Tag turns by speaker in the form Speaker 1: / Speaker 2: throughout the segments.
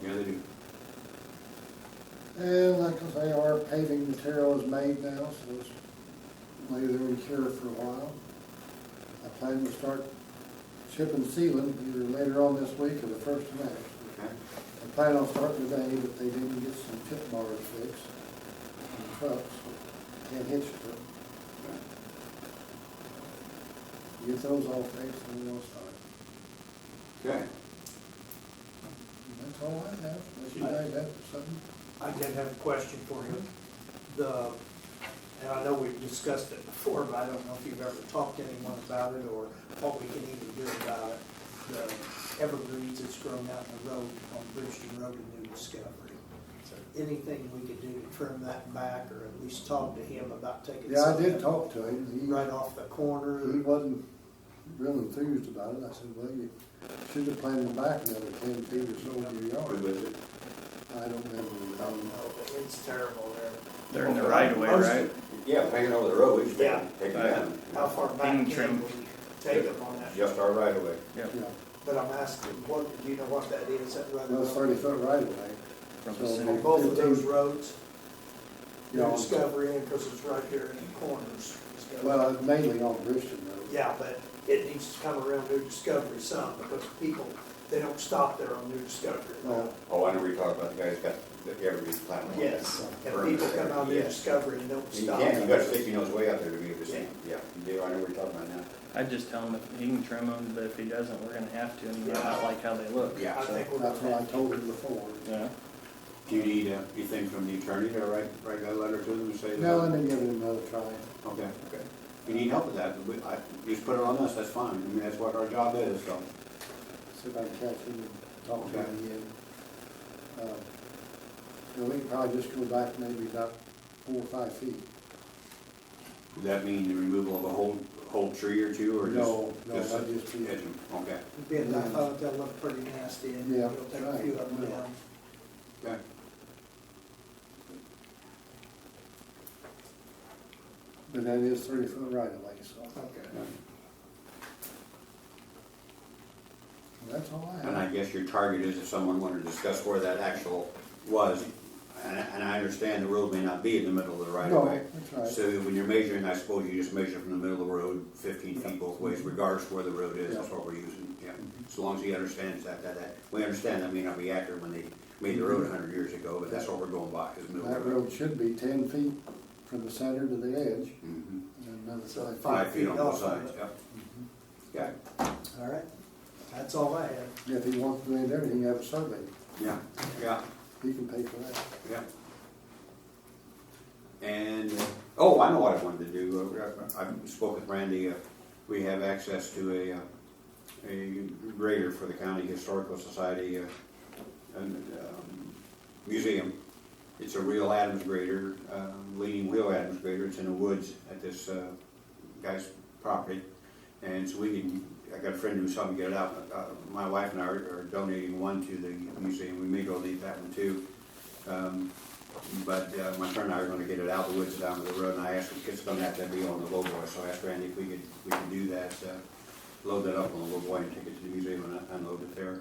Speaker 1: do.
Speaker 2: And like I say, our paving material is made now, so it's lay there and cure for a while. I plan to start chipping sealing either later on this week or the first of May.
Speaker 1: Okay.
Speaker 2: I plan on starting today, but they didn't get some tip bars fixed on the trucks, so can't hitch it. Get those all fixed and then we'll start.
Speaker 1: Okay.
Speaker 2: That's all I have, unless you guys have something.
Speaker 3: I did have a question for you. The, and I know we've discussed it before, but I don't know if you've ever talked to anyone about it or what we can even do about it. The evergreens that's grown out in the road on Bridgeton Road and New Discovery. Anything we could do to trim that back or at least talk to him about taking
Speaker 2: Yeah, I did
Speaker 3: something
Speaker 2: talk to him. He-
Speaker 3: right off the
Speaker 2: He
Speaker 3: corner?
Speaker 2: wasn't real enthused about it. I said, well, you should have planned them back another ten feet or so in your
Speaker 1: Who
Speaker 2: yard.
Speaker 1: is it?
Speaker 2: I don't um, remember.
Speaker 3: I don't know, but Oh, it's terrible there.
Speaker 4: They're in the right of way, right?
Speaker 1: Yeah, hanging over the road, we should
Speaker 3: Yeah.
Speaker 1: take it down.
Speaker 3: How far
Speaker 4: Being
Speaker 3: back can
Speaker 4: trimmed.
Speaker 3: we take them on that?
Speaker 1: Just our right away.
Speaker 4: Yep,
Speaker 2: Yeah,
Speaker 3: But I'm asking, what, do you know what that is? That right
Speaker 2: well,
Speaker 3: of-
Speaker 2: it's thirty foot right away.
Speaker 4: from
Speaker 2: So-
Speaker 4: the center.
Speaker 3: on both of those roads,
Speaker 2: Yeah,
Speaker 3: your
Speaker 2: on-
Speaker 3: Discovery and, because it's right here in the corners. Discovery.
Speaker 2: Well, it's mainly on Bridgeton Road.
Speaker 3: Yeah, but it needs to come around New Discovery some, because people, they don't stop there on New Discovery.
Speaker 2: No.
Speaker 1: Oh, I know we talked about the guy's got the evergreen plan.
Speaker 3: Yes, and people come out New
Speaker 1: Yes.
Speaker 3: Discovery and don't
Speaker 1: You
Speaker 3: stop.
Speaker 1: can't, you gotta stick your nose way out there to be able to see. Yeah, you do, I know we're talking about now.
Speaker 4: I'd just tell him if he can trim them, but if he doesn't, we're gonna have to, and I don't like how they look.
Speaker 1: Yeah.
Speaker 3: I think we're
Speaker 2: That's
Speaker 3: gonna
Speaker 2: what I
Speaker 3: have to.
Speaker 2: told him before.
Speaker 4: Yeah.
Speaker 1: Do you need, uh, anything from the attorney to write, write that letter to them and say? that-
Speaker 2: No, let me give it another try.
Speaker 1: Okay, okay. If you need help with that, we, I, just put it on us, that's fine. I mean, that's what our job is, so.
Speaker 2: See if I can catch him and talk to him
Speaker 1: Okay.
Speaker 2: again. Uh, You know, we can probably just go back maybe about four or five feet.
Speaker 1: Would that mean the removal of a whole, whole tree or two, or just?
Speaker 2: No, no,
Speaker 1: just
Speaker 2: that'd just be-
Speaker 1: edge 'em? Okay,
Speaker 3: Be a knife out, they'll look pretty nasty, and
Speaker 2: Yeah,
Speaker 3: it'll take a
Speaker 2: right.
Speaker 3: few of them down.
Speaker 1: okay.
Speaker 2: But that is thirty foot right away, so
Speaker 3: Okay.
Speaker 2: that's all I
Speaker 1: And I
Speaker 2: have.
Speaker 1: guess your target is if someone wanted to discuss where that actual was, and, and I understand the road may not be in the middle of the right of way.
Speaker 2: No, that's right.
Speaker 1: So when you're measuring, I suppose you just measure from the middle of the road, fifteen feet both ways, regardless of where the road is, that's what we're using, yeah. As long as he understands that, that, that, we understand that may not be accurate when they made the road a hundred years ago, but that's what we're going by, is the middle
Speaker 2: That
Speaker 1: of the road.
Speaker 2: road should be ten feet from the center to the edge,
Speaker 1: Mhm.
Speaker 2: and another
Speaker 3: So
Speaker 2: five feet.
Speaker 1: Five feet on both sides, yeah. Yeah,
Speaker 2: Mm-hmm.
Speaker 3: All right, that's all I have.
Speaker 2: If he wants to do anything, he can have a survey,
Speaker 1: yeah, yeah.
Speaker 2: he can pay for that.
Speaker 1: Yeah. And, uh, oh, I know what I wanted to do. Uh, I I spoke with Randy. uh, We have access to a, uh, a grader for the County Historical Society uh, and, um, Museum. It's a real Adams grader, uh, leaning wheel Adams grader. It's in the woods at this uh, guy's property. And so we can, I got a friend who's helping get it out. Uh, My wife and I are are donating one to the museum. We may go leave that one too. Um, But uh, my friend and I are gonna get it out of the woods down to the road, and I asked, it's gonna have to be on the low boy, so I asked Randy if we could, we could do that, uh, load that up on the low boy and take it to the museum and unload it there.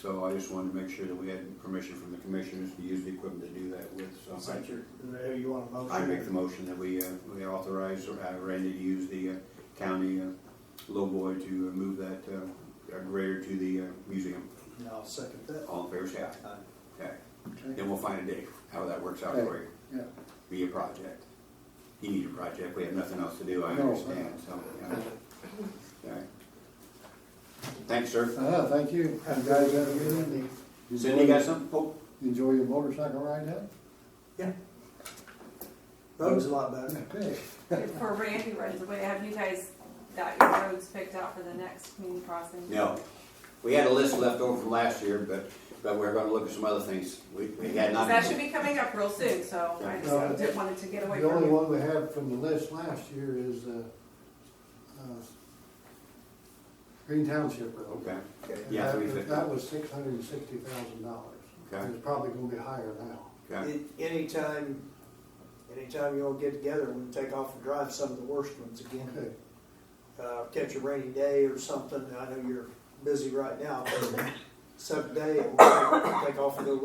Speaker 1: So I just wanted to make sure that we had permission from the commissioners to use the equipment to do that with,
Speaker 3: Is
Speaker 1: so
Speaker 3: that your, there you want a motion?
Speaker 1: I I make the motion that we, uh, we authorize uh, Randy to use the uh, county uh, low boy to uh, move that uh, grader to the uh, museum.
Speaker 3: And I'll second that.
Speaker 1: All in favor, say aye.
Speaker 3: Aye.
Speaker 1: Okay,
Speaker 2: Okay.
Speaker 1: then we'll find a date, how that works out for you.
Speaker 2: Yeah,
Speaker 1: be a project. You need a project, we have nothing else to do, I
Speaker 2: No.
Speaker 1: understand, so, yeah. Alright. Thanks, sir.
Speaker 2: uh, thank you. You guys have a good evening.
Speaker 1: Cindy, you got something? Oh,
Speaker 2: Enjoy your motorcycle ride out?
Speaker 3: Road's a lot better.
Speaker 2: Okay.
Speaker 5: Before Randy runs away, have you guys got your roads picked out for the next community crossing?
Speaker 1: No, we had a list left over from last year, but, but we're gonna look at some other things, we, we had not.
Speaker 5: That should be coming up real soon, so I
Speaker 2: No.
Speaker 5: just didn't wanted to get away
Speaker 2: The
Speaker 5: from
Speaker 2: only
Speaker 5: you.
Speaker 2: one we have from the list last year is, uh, uh, Green Township Road.
Speaker 1: Okay,
Speaker 3: Okay.
Speaker 1: Yeah,
Speaker 2: And that-
Speaker 1: 350.
Speaker 2: That was six hundred and sixty thousand dollars.
Speaker 1: Okay.
Speaker 2: It's probably gonna be higher now.
Speaker 1: okay,
Speaker 3: An- Anytime, anytime you all get together, we can take off and drive some of the worst ones again.
Speaker 2: Okay.
Speaker 3: Uh, catch a rainy day or something, I know you're busy right now, but some day, we'll take- take off and go